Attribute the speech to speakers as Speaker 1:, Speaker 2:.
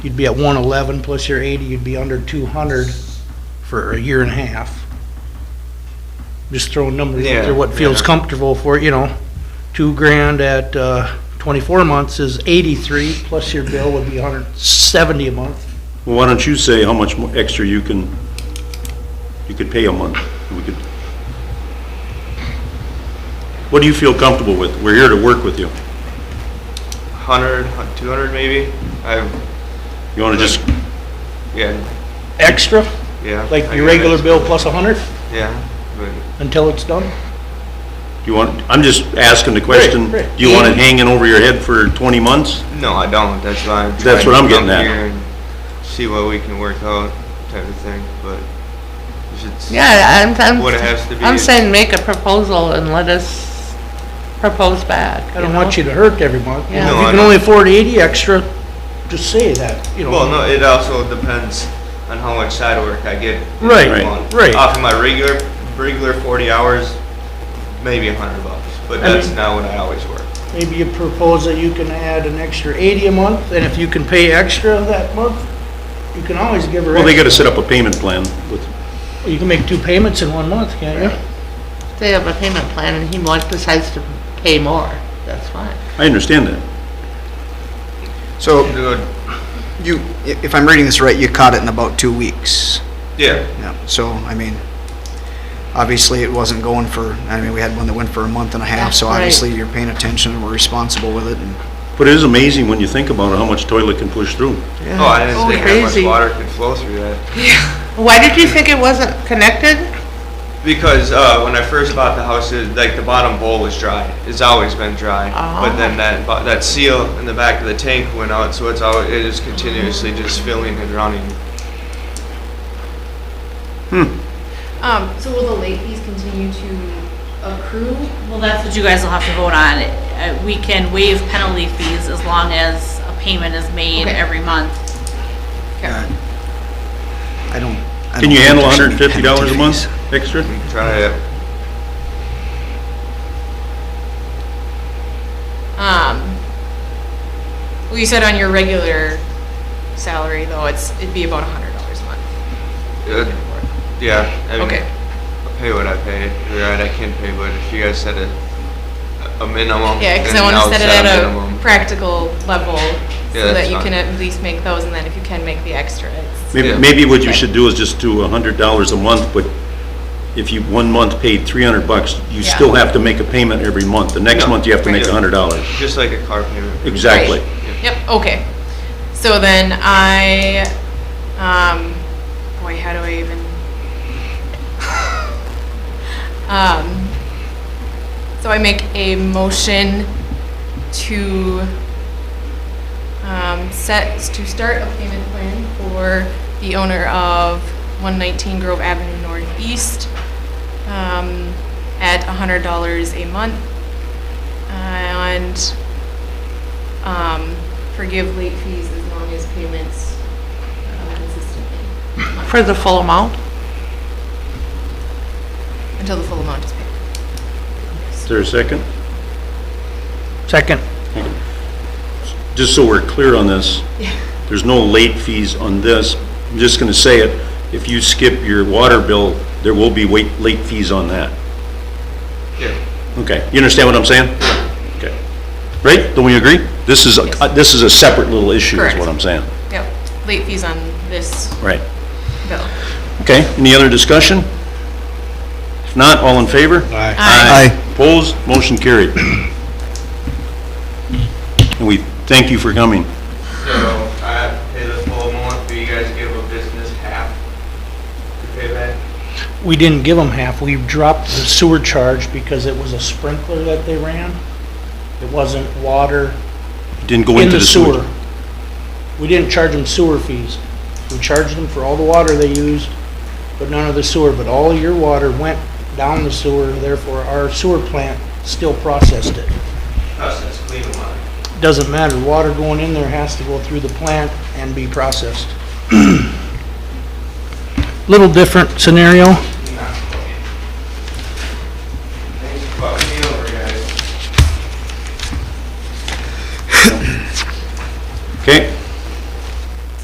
Speaker 1: you'd be at one eleven plus your eighty, you'd be under two hundred for a year and a half. Just throwing numbers out
Speaker 2: Yeah,
Speaker 1: there, what feels
Speaker 2: yeah.
Speaker 1: comfortable for, you know, two grand at, uh, twenty-four months is eighty-three, plus your bill would be hundred seventy a month.
Speaker 3: Well, why don't you say how much more extra you can, you could pay a month? We could. What do you feel comfortable with? We're here to work with you.
Speaker 2: 100, 200 maybe. I,
Speaker 3: You want to just,
Speaker 2: yeah,
Speaker 1: Extra,
Speaker 2: yeah.
Speaker 1: like
Speaker 2: I
Speaker 1: your
Speaker 2: guess.
Speaker 1: regular bill plus a hundred
Speaker 2: Yeah, but
Speaker 1: until it's done?
Speaker 3: you want, I'm just asking the question.
Speaker 1: Right, right.
Speaker 3: Do you want it hanging over your head for 20 months?
Speaker 2: no, I don't. That's why I'm
Speaker 3: That's
Speaker 2: trying
Speaker 3: what
Speaker 2: to come
Speaker 3: I'm getting at.
Speaker 2: here and See what we can work out type of thing, but if it's.
Speaker 4: Yeah, I'm,
Speaker 2: What it has to
Speaker 4: I'm,
Speaker 2: be
Speaker 4: I'm
Speaker 2: is-
Speaker 4: saying make a proposal and let us propose back.
Speaker 1: I don't want you to hurt every month. You
Speaker 4: Yeah.
Speaker 1: know,
Speaker 2: No,
Speaker 1: If you
Speaker 2: I
Speaker 1: can
Speaker 2: know.
Speaker 1: only afford eighty extra, just say that, you know.
Speaker 2: Well, no, it also depends on how much side work I get. in
Speaker 1: Right,
Speaker 2: the
Speaker 3: right,
Speaker 2: month.
Speaker 1: right.
Speaker 2: Off of my regular, regular 40 hours, maybe 100 bucks, but
Speaker 1: I
Speaker 2: that's
Speaker 1: mean-
Speaker 2: not what I always work.
Speaker 1: Maybe you propose that you can add an extra eighty a month, and if you can pay extra that month, you can always give her.
Speaker 3: Well, they got
Speaker 1: extra.
Speaker 3: to set up a payment plan with,
Speaker 1: You can make two payments in one month, can't you?
Speaker 4: They have a payment plan and he wants, decides to pay more, that's fine.
Speaker 3: I understand that.
Speaker 5: So
Speaker 2: Good.
Speaker 5: you, i- if I'm reading this right, you caught it in about two weeks.
Speaker 2: Yeah,
Speaker 5: Yeah, so, I mean, obviously it wasn't going for, I mean, we had one that went for a month and a half, so
Speaker 4: Right.
Speaker 5: obviously you're paying attention and we're responsible with it and.
Speaker 3: But it is amazing when you think about it, how much toilet can push through.
Speaker 2: oh, I didn't
Speaker 4: Oh,
Speaker 2: think how much
Speaker 4: crazy.
Speaker 2: water could flow through that.
Speaker 4: Why did you think it wasn't connected?
Speaker 2: Because, uh, when I first bought the house, it, like, the bottom bowl was dry, it's always been dry. But then that, bo- that seal in the back of the tank went out, so it's always, it is continuously just filling and running.
Speaker 6: Um, so will the late fees continue to accrue?
Speaker 7: Well, that's what you guys will have to vote on. Uh, We can waive penalty fees as long as a payment is made
Speaker 6: Okay.
Speaker 7: every month.
Speaker 5: uh, I don't. I
Speaker 3: Can
Speaker 5: don't
Speaker 3: you
Speaker 5: think
Speaker 3: handle
Speaker 5: there should be
Speaker 3: $150 a
Speaker 5: penalty
Speaker 3: month
Speaker 5: fees.
Speaker 3: extra?
Speaker 2: Try it.
Speaker 6: Um, well, you said on your regular salary though, it's, it'd be about a hundred dollars a month.
Speaker 2: Uh, Yeah, I mean,
Speaker 6: Okay.
Speaker 2: I pay what I pay. You're right, I can pay, but if you guys set a, a minimum,
Speaker 6: Yeah, cause
Speaker 2: then
Speaker 6: I wanna
Speaker 2: I'll
Speaker 6: set it
Speaker 2: set
Speaker 6: at
Speaker 2: a
Speaker 6: a
Speaker 2: minimum.
Speaker 6: practical level
Speaker 2: Yeah, that's
Speaker 6: so that you
Speaker 2: fine.
Speaker 6: can at least make those and then if you can make the extra, it's.
Speaker 3: Maybe,
Speaker 2: Yeah.
Speaker 3: maybe what you should do is just do a hundred dollars a month, but if you, one month paid three hundred bucks, you
Speaker 6: Yeah.
Speaker 3: still have to make a payment every month. The next
Speaker 2: Yeah.
Speaker 3: month, you have to make
Speaker 2: Yeah.
Speaker 3: a hundred dollars.
Speaker 2: Just like a car payment.
Speaker 3: Exactly.
Speaker 6: Yep, okay. So then I, um, boy, how do I even? Um, so I make a motion to, um, set, to start a payment plan for the owner of one nineteen Grove Avenue Northeast, um, at a hundred dollars a month. And um, forgive late fees as long as payments uh, consistently
Speaker 4: For the full amount?
Speaker 6: until the full amount is paid.
Speaker 3: Is there a second?
Speaker 1: Second,
Speaker 3: Just so we're clear on this, there's no late fees on this. I'm just gonna say it, if you skip your water bill, there will be wait, late fees on that.
Speaker 2: Yeah.
Speaker 3: Okay, you understand what I'm saying? Okay. Right? Don't we agree? This is, a- this is a separate little issue, is
Speaker 6: Correct.
Speaker 3: what I'm saying.
Speaker 6: Yep, late fees on this
Speaker 3: Right.
Speaker 6: bill.
Speaker 3: Okay, any other discussion? If not, all in favor? Aye. Aye. Opposed, motion carried. And we thank you for coming.
Speaker 2: So I pay the full amount, but you guys give a business half to pay back?
Speaker 1: we didn't give them half, we dropped the sewer charge because it was a sprinkler that they ran. It wasn't water
Speaker 3: Didn't go
Speaker 1: in
Speaker 3: into
Speaker 1: the
Speaker 3: the sewer.
Speaker 1: sewer. We didn't charge them sewer fees. We charged them for all the water they used, but none of the sewer, but all your water went down the sewer, therefore our sewer plant still processed it.
Speaker 2: Us, that's clean water.
Speaker 1: Doesn't matter, water going in there has to go through the plant and be processed. Little different scenario,